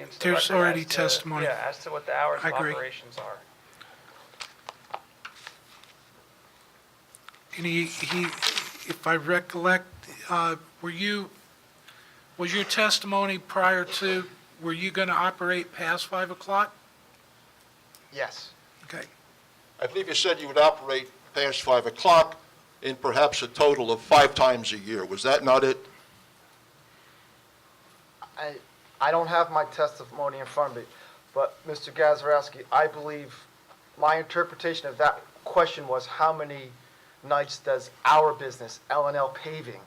includes the There's record as already to- testimony. Yeah, as to what the hours I of agree. operations are. And he, he, if I recollect, uh, were you, was your testimony prior to, were you going to operate past 5 o'clock? Yes. Okay. I believe you said you would operate past 5 o'clock in perhaps a total of five times a year. Was that not it? I, I don't have my testimony in front of me, but Mr. Gazarovski, I believe, my interpretation of that question was how many nights does our business, L and L Paving,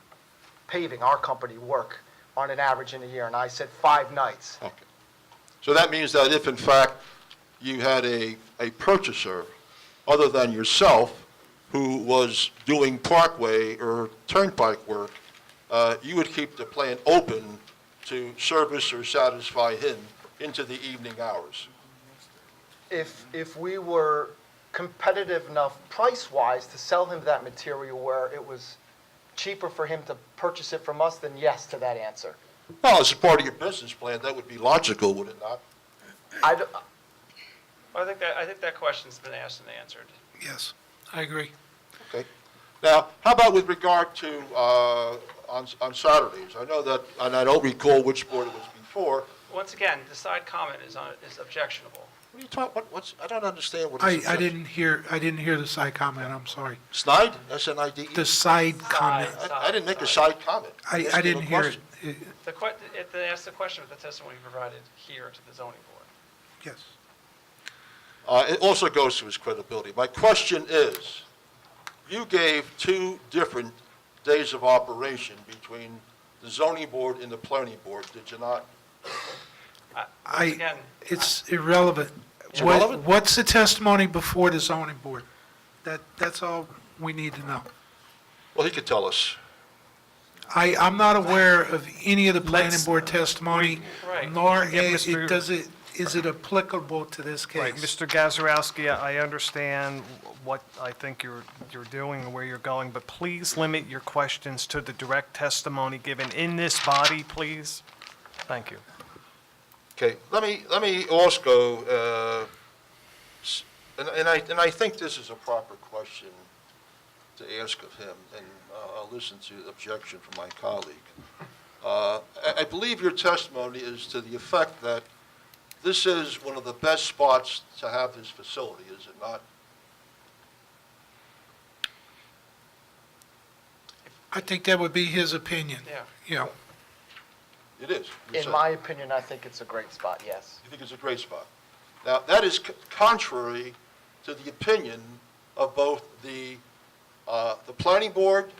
paving, our company, work on an average in a year? And I said five nights. Okay. So that means that if in fact you had a, a purchaser other than yourself who was doing parkway or turnpike work, uh, you would keep the plant open to service or satisfy him into the evening hours. If, if we were competitive enough price-wise to sell him that material where it was cheaper for him to purchase it from us, then yes to that answer. Well, as a part of your business plan, that would be logical, would it not? I, d- I think that, I think that question's been asked and answered. Yes, I agree. Okay. Now, how about with regard to, uh, on, on Saturdays? I know that, and I don't recall which board it was before. Once again, the side comment is on, is objectionable. What are you talking, what, what's, I don't understand what I, it's. I didn't hear, I didn't hear the side comment, I'm sorry. Snide, S-N-I-D-E? The side comment, I, E. I didn't make a side comment. I, I Asking a didn't hear it. question. It- The que, it, they asked the question of the testimony provided here to the zoning board. Yes. Uh, it also goes to his credibility. My question is, you gave two different days of operation between the zoning board and the planning board, did you not? Once I, again, it's irrelevant. It's What- irrelevant? What's the testimony before the zoning board? That, that's all we need to know. Well, he could tell us. I, I'm not aware of any of the planning Let's- board testimony, Right. nor Yeah, is, Mr. it- does it, is it applicable to this case? Right, Mr. Gazarovski, I I understand what I think you're, you're doing and where you're going, but please limit your questions to the direct testimony given in this body, please. Thank you. Okay, let me, let me also, uh, s- and and I, and I think this is a proper question to ask of him, and uh, I'll listen to the objection from my colleague. Uh, I, I believe your testimony is to the effect that this is one of the best spots to have this facility, is it not? I think that would be his opinion. Yeah. You know, It is. you in said. my opinion, I think it's a great spot, yes. You think it's a great spot. Now, that is c- contrary to the opinion of both the, uh, the planning board,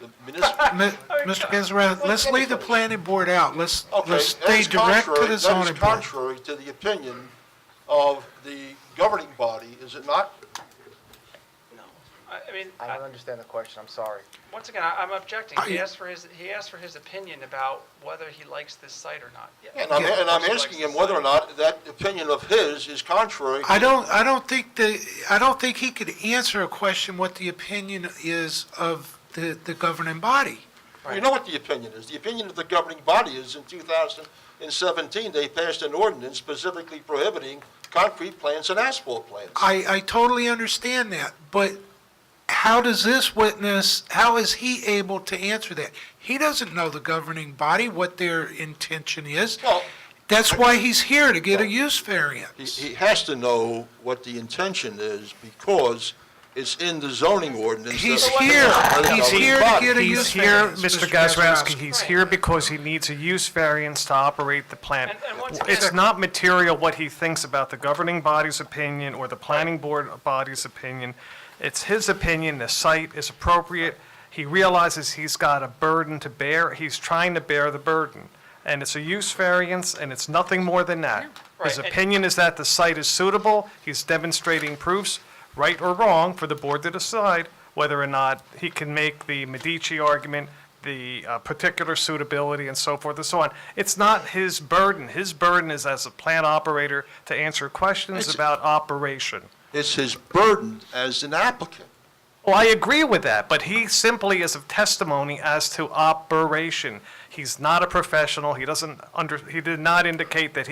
the municipal, Mi- Mr. Gazarovski, let's leave the planning board out, let's, Okay, let's that stay is direct to contrary- the zoning That is board. contrary to the opinion of the governing body, is it not? I, I mean, I I- don't understand the question, I'm sorry. once again, I- I'm objecting. He I- asked for his, he asked for his opinion about whether he likes this site or not. Yeah, And I'm, of and I'm course he likes asking him this whether site. or not that opinion of his is contrary. I don't, I don't think the, I don't think he could answer a question what the opinion is of the, the governing body. You know what the opinion is. The opinion of the governing body is in 2017, they passed an ordinance specifically prohibiting concrete plants and asphalt plants. I, I totally understand that, but how does this witness, how is he able to answer that? He doesn't know the governing body, what their intention is. Well, That's why he's here, to get a use He, variance. he has to know what the intention is because it's in the zoning ordinance. He's that- here. by the He's governing here to body. get a He's use here, variance, Mr. Mr. Gazarovski, Gazarovski. he's here because he needs a use variance to operate the plant. And- and once It's again- not material what he thinks about the governing body's opinion or the planning board body's opinion. It's his opinion, the site is appropriate. He realizes he's got a burden to bear, he's trying to bear the burden. And it's a use variance, and it's nothing more than that. His Right, and- opinion is that the site is suitable, he's demonstrating proofs, right or wrong, for the board to decide whether or not he can make the Medici argument, the uh, particular suitability, and so forth and so on. It's not his burden. His burden is as a plant operator to answer questions It's- about operation. It's his burden as an applicant. Well, I agree with that, but he simply is of testimony as to operation. He's not a professional, he doesn't under, he did not indicate that